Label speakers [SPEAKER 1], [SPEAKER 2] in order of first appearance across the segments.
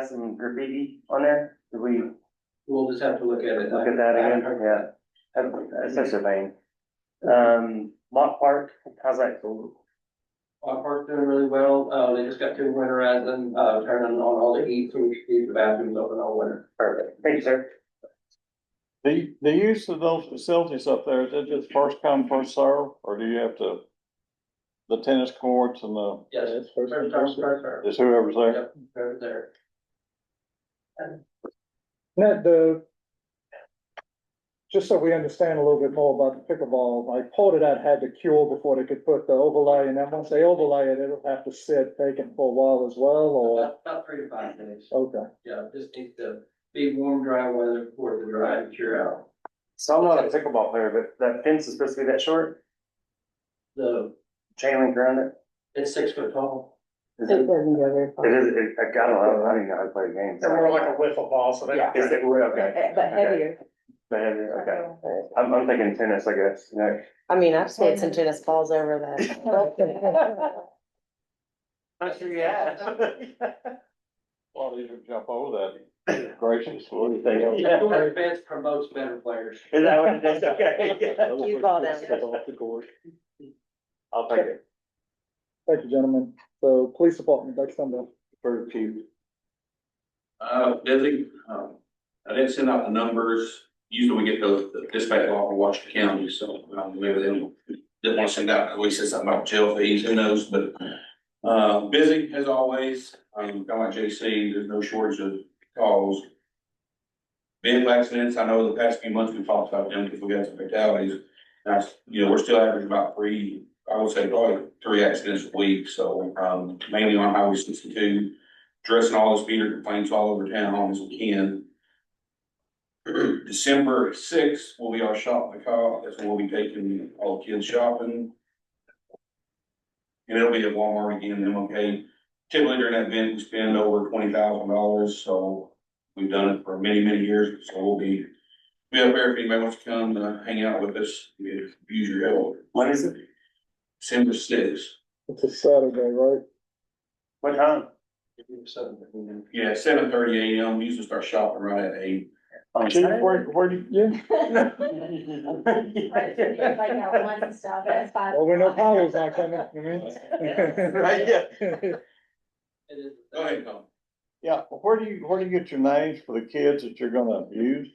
[SPEAKER 1] has some graffiti on there, did we
[SPEAKER 2] We'll just have to look at it.
[SPEAKER 1] look at that again? Yeah, that's that's such a vein. Um, Mott Park, how's that going?
[SPEAKER 2] Our park's doing really well, uh, they just got to winterize and, uh, turning on all the heat, so we should keep the bathrooms open all winter.
[SPEAKER 1] Perfect, thank you, sir.
[SPEAKER 3] The, the use of those facilities up there, is it just first come, first serve, or do you have to? The tennis courts and the,
[SPEAKER 2] Yes, first, first, first, first,
[SPEAKER 3] is whoever's there?
[SPEAKER 2] yep, over there.
[SPEAKER 4] Ned, the, just so we understand a little bit more about the pickleball, like Portadot had to cure before they could put the overlay, and then once they overlay it, it'll have to sit vacant for a while as well, or,
[SPEAKER 2] About about three to five days,
[SPEAKER 4] okay.
[SPEAKER 2] yeah, just needs to be warm, dry weather before the dry cure out.
[SPEAKER 1] So I'm not a pickleball player, but that fence is supposed to be that short,
[SPEAKER 2] The,
[SPEAKER 1] chain link around it.
[SPEAKER 2] it's six foot tall.
[SPEAKER 1] Is
[SPEAKER 5] It
[SPEAKER 1] It
[SPEAKER 5] doesn't go very
[SPEAKER 1] it
[SPEAKER 5] far,
[SPEAKER 1] is, it- I don't know, I don't even know how to play games.
[SPEAKER 6] They're more like a wiffle ball, so they.
[SPEAKER 5] Yeah.
[SPEAKER 1] Is it, we're okay.
[SPEAKER 5] Eh, but heavier.
[SPEAKER 1] But heavier, okay. I'm, I'm thinking tennis, I guess, you know.
[SPEAKER 5] I mean, I've slid some tennis balls over that.
[SPEAKER 1] Not sure yet.
[SPEAKER 3] A lot easier to jump over that gracious, what do you think?
[SPEAKER 1] Yeah.
[SPEAKER 2] The fence promotes better players.
[SPEAKER 1] Is that what it is? Okay, yeah.
[SPEAKER 5] You call them.
[SPEAKER 1] I'll take it.
[SPEAKER 4] Thank you, gentlemen. So police department, next Sunday.
[SPEAKER 3] Very cute.
[SPEAKER 7] Uh, Desi, um, I didn't send out the numbers. Usually we get those the dispatch law from Washington County, so um, maybe they didn't want to send out, we said something about jail fees, who knows, but uh, busy as always. Um, kind of like JC, there's no shortage of calls. Vehicle accidents, I know the past few months we talked about them because we got some fatalities. That's, you know, we're still averaging about three, I would say probably three accidents a week, so um, mainly on Highway sixty-two addressing all the speeder complaints all over town as we can. December sixth will be our shop in the car, that's when we'll be taking all the kids shopping. And it'll be at Walmart again, and MLK. Typically during that event, we spend over twenty thousand dollars, so we've done it for many, many years, so we'll be. Be up there if anybody wants to come to hang out with us, use your help.
[SPEAKER 1] When is it?
[SPEAKER 7] December sixth,
[SPEAKER 4] It's a Saturday, right?
[SPEAKER 1] What time?
[SPEAKER 7] yeah, seven thirty AM, we usually start shopping right at eight.
[SPEAKER 1] On
[SPEAKER 3] Chief,
[SPEAKER 1] Saturday?
[SPEAKER 3] where, where do you?
[SPEAKER 4] Well, we know Powell's not coming, I mean.
[SPEAKER 2] It is.
[SPEAKER 7] Go ahead, Tom.
[SPEAKER 3] Yeah, where do you, where do you get your names for the kids that you're gonna abuse?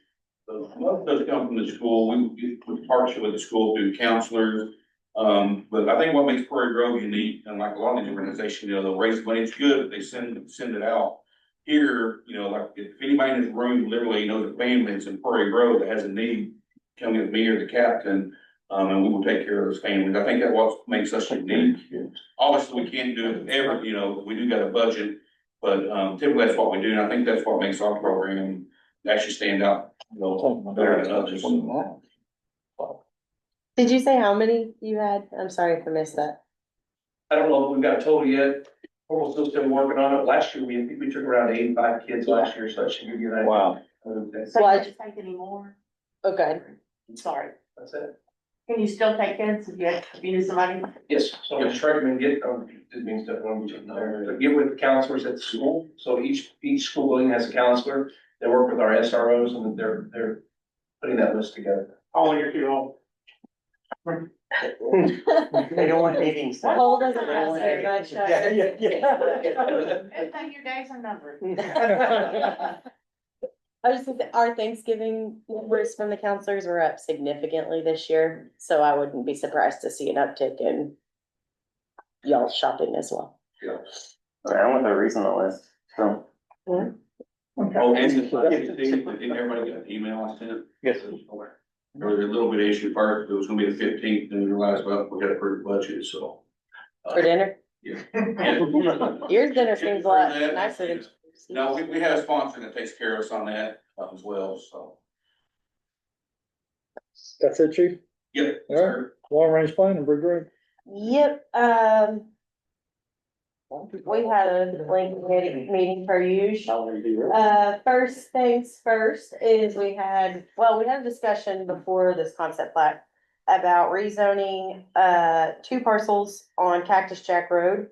[SPEAKER 7] So, Most of those come from the school, we, we- we partnership with the school through counselors. Um, but I think what makes Prairie Grove unique, and like a lot of these organizations, you know, they'll raise money, it's good, they send, send it out. Here, you know, like, if anybody in this room literally knows a family that's in Prairie Grove that has a need, come get me or the captain, um, and we will take care of those families, I think that what makes us unique. Obviously, we can't do it ever, you know, we do got a budget, but, um, typically that's what we do, and I think that's what makes our program actually stand out Better than others.
[SPEAKER 5] Did you say how many you had? I'm sorry if I missed that.
[SPEAKER 2] I don't know if we've got a total yet, we're still still working on it, last year, we, we took around eighty-five kids last year, so that should give you that.
[SPEAKER 3] Wow,
[SPEAKER 2] That's
[SPEAKER 5] Well, I-
[SPEAKER 8] Can't take any more.
[SPEAKER 5] Oh, good.
[SPEAKER 8] Sorry.
[SPEAKER 2] that's it.
[SPEAKER 8] Can you still take kids if you, had- if you knew somebody?
[SPEAKER 2] Yes, so I'm sure you can get, um, it means that when we, uh, get with the counselors at the school, so each, each school building has a counselor. They work with our SROs and they're, they're putting that list together.
[SPEAKER 6] Oh, when you're too old.
[SPEAKER 1] They don't want dating stuff.
[SPEAKER 5] Cole doesn't have very much.
[SPEAKER 6] Yeah, yeah, yeah.
[SPEAKER 8] Everything your days are numbered.
[SPEAKER 5] I just think that our Thanksgiving numbers from the counselors were up significantly this year, so I wouldn't be surprised to see an uptick in y'all shopping as well.
[SPEAKER 1] I want the reason on this, so.
[SPEAKER 7] Oh, and the fifteenth, didn't everybody get an email I sent? it?
[SPEAKER 3] yes,
[SPEAKER 7] Okay. There was a little bit of issue first, it was gonna be the fifteenth, then we realized, well, we gotta approve the budget, so. uh,
[SPEAKER 5] For dinner,
[SPEAKER 7] yeah.
[SPEAKER 5] your dinner seems a lot nicer than.
[SPEAKER 7] No, we, we had a sponsor that takes care of us on that uh, as well, so.
[SPEAKER 4] That's it, chief?
[SPEAKER 7] Yep.
[SPEAKER 4] All right. Long range plan and big rig.
[SPEAKER 5] Yep, um. We had a link meeting, meeting per usual. Uh, first things first is we had, well, we had a discussion before this concept plat. About rezoning, uh, two parcels on Cactus Jack Road.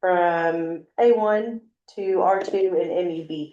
[SPEAKER 5] From A one to R two and MEB